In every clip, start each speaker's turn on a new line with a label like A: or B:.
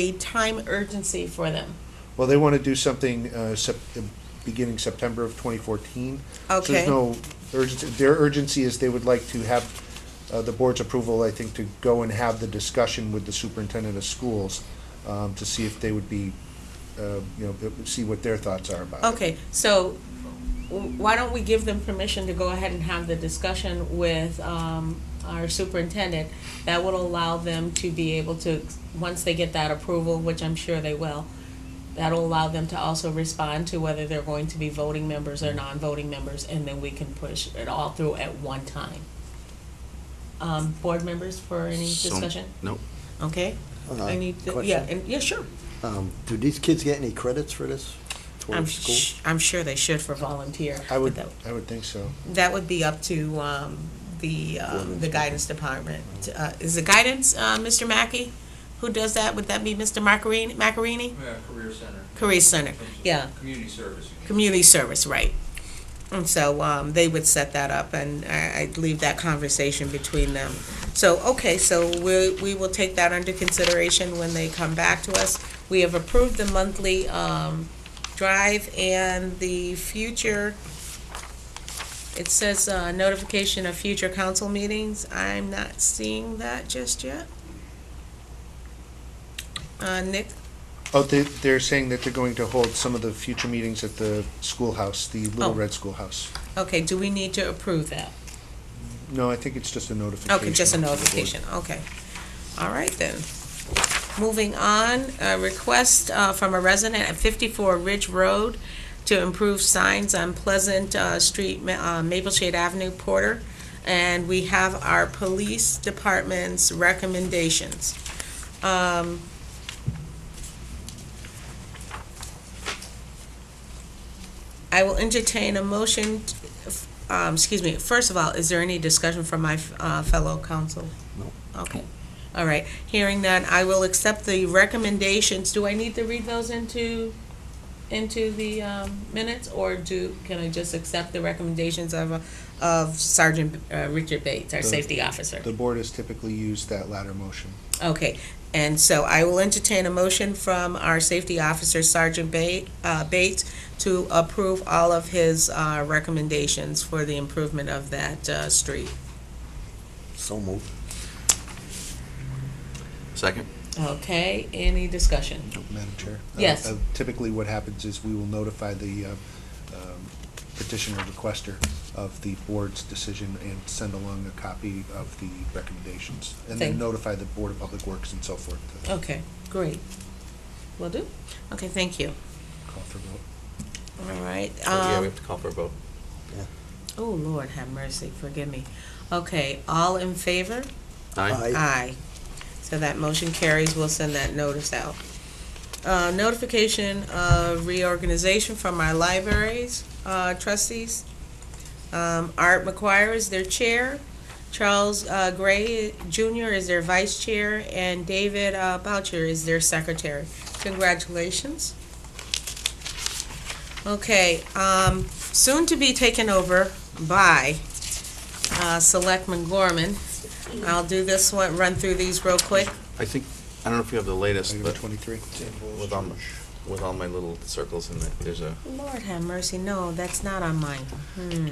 A: a time urgency for them.
B: Well, they want to do something uh, sep- beginning September of 2014. So
A: Okay.
B: there's no urgency, their urgency is they would like to have uh, the board's approval, I think, to go and have the discussion with the superintendent of schools um, to see if they would be, uh, you know, see what their thoughts are about it.
A: Okay, so w- why don't we give them permission to go ahead and have the discussion with um, our superintendent? That would allow them to be able to, once they get that approval, which I'm sure they will, that'll allow them to also respond to whether they're going to be voting members or non-voting members, and then we can push it all through at one time. Um, Board members for any
C: So-
A: discussion?
C: No.
A: Okay?
D: Uh,
A: I need, to- yeah,
D: question.
A: and, yeah, sure.
D: Um, do these kids get any credits for this
A: I'm,
D: towards school?
A: sh- I'm sure they should for volunteer.
B: I
A: but
B: would,
A: that-
B: I would think so.
A: That would be up to um, the, uh,
D: Ordinance
A: the guidance department. Uh, Is the guidance, uh, Mr. Mackey? Who does that? Would that be Mr. Macarini, Macarini?
E: Yeah, Career Center.
A: Career Center, yeah.
E: Community service.
A: Community service, right. And so um, they would set that up, and I- I'd leave that conversation between them. So, okay, so we we will take that under consideration when they come back to us. We have approved the monthly um, drive and the future, it says uh, notification of future council meetings. I'm not seeing that just yet. Uh, Nick,
B: Oh, they, they're saying that they're going to hold some of the future meetings at the schoolhouse, the
A: Oh.
B: Little Red Schoolhouse.
A: okay, do we need to approve that?
B: No, I think it's just a notification.
A: Okay, just a
B: to the board.
A: notification, okay. All right then. Moving on, a request uh, from a resident at 54 Ridge Road to improve signs on Pleasant uh, Street, Ma- uh, Maple Shade Avenue, Porter. And we have our police department's recommendations. Um, I will entertain a motion t- um, excuse me, first of all, is there any discussion from my uh, fellow council?
D: No.
A: Okay, all right, hearing none, I will accept the recommendations, do I need to read those into, into the um, minutes? Or do, can I just accept the recommendations of, uh, of Sergeant uh, Richard Bates, our
B: The-
A: safety officer?
B: The board has typically used that latter motion.
A: Okay, and so I will entertain a motion from our safety officer Sergeant Ba- uh, Bates to approve all of his uh, recommendations for the improvement of that uh, street.
D: So moved.
C: Second?
A: Okay, any discussion?
B: Madam Chair? Uh,
A: Yes.
B: uh, Typically, what happens is we will notify the uh, um, petitioner requester of the board's decision and send along a copy of the recommendations. And
A: Thank- Oh.
B: then notify the Board of Public Works and so forth to
A: Okay, great. Will do. Okay, thank you.
B: call for vote.
A: All right.
C: Yeah,
A: um,
C: we have to call for a vote.
A: Oh, Lord, have mercy, forgive me. Okay, all in favor?
C: Aye.
D: Aye.
A: Aye. So that motion carries, we'll send that notice out. Uh, Notification of reorganization from our libraries uh, trustees. Um, Art McGuire is their chair, Charles uh, Gray Jr. is their vice chair, and David uh, Boucher is their secretary. Congratulations. Okay, um, soon to be taken over by uh, Selectman Gorman. I'll do this one, run through these real quick.
C: I think, I don't know if you have the latest,
B: Item
C: but
B: twenty-three.
C: with um, all, my- with all my little circles in there, there's a,
A: Lord have mercy, no, that's not on mine. Hmm,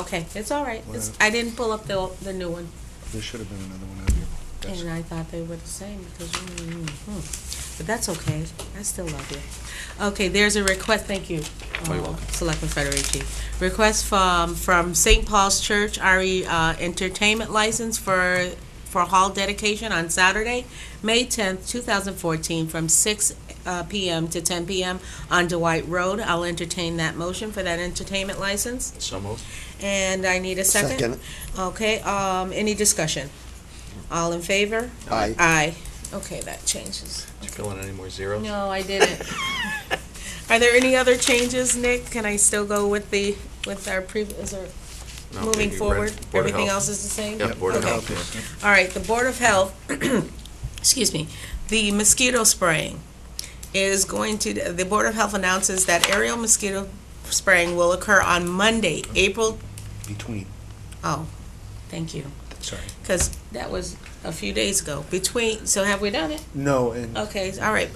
A: okay, it's all right. It's, I didn't pull up the, the new one,
B: There should have been another one on your desk.
A: and I thought they were the same because, mm, hmm. but that's okay. I still love you. Okay, there's a request, thank you.
C: Oh, you're
A: uh,
C: welcome.
A: Selectman Federici. Request from, from St. Paul's Church, RE uh, Entertainment License for, for hall dedication on Saturday, May 10th, 2014, from 6 uh, PM to 10 PM on Dwight Road. I'll entertain that motion for that entertainment license,
C: so moved.
A: and I need a second. Okay, um, any discussion? All in favor?
D: Aye.
A: Aye. Okay, that changes.
C: Did you fill in any more zeros?
A: No, I didn't. Are there any other changes, Nick? Can I still go with the, with our previous, or
C: No,
A: moving
C: you read
A: forward?
C: Board of
A: Everything
C: Health.
A: else is the same?
C: Yeah, Board of
A: Okay.
C: Health. yeah.
A: All right, the Board of Health, excuse me, the mosquito spraying is going to, the Board of Health announces that aerial mosquito spraying will occur on Monday, April,
B: Between,
A: oh, thank you.
B: sorry.
A: Because that was a few days ago, between, so have we done it?
B: No, and
A: Okay, all right,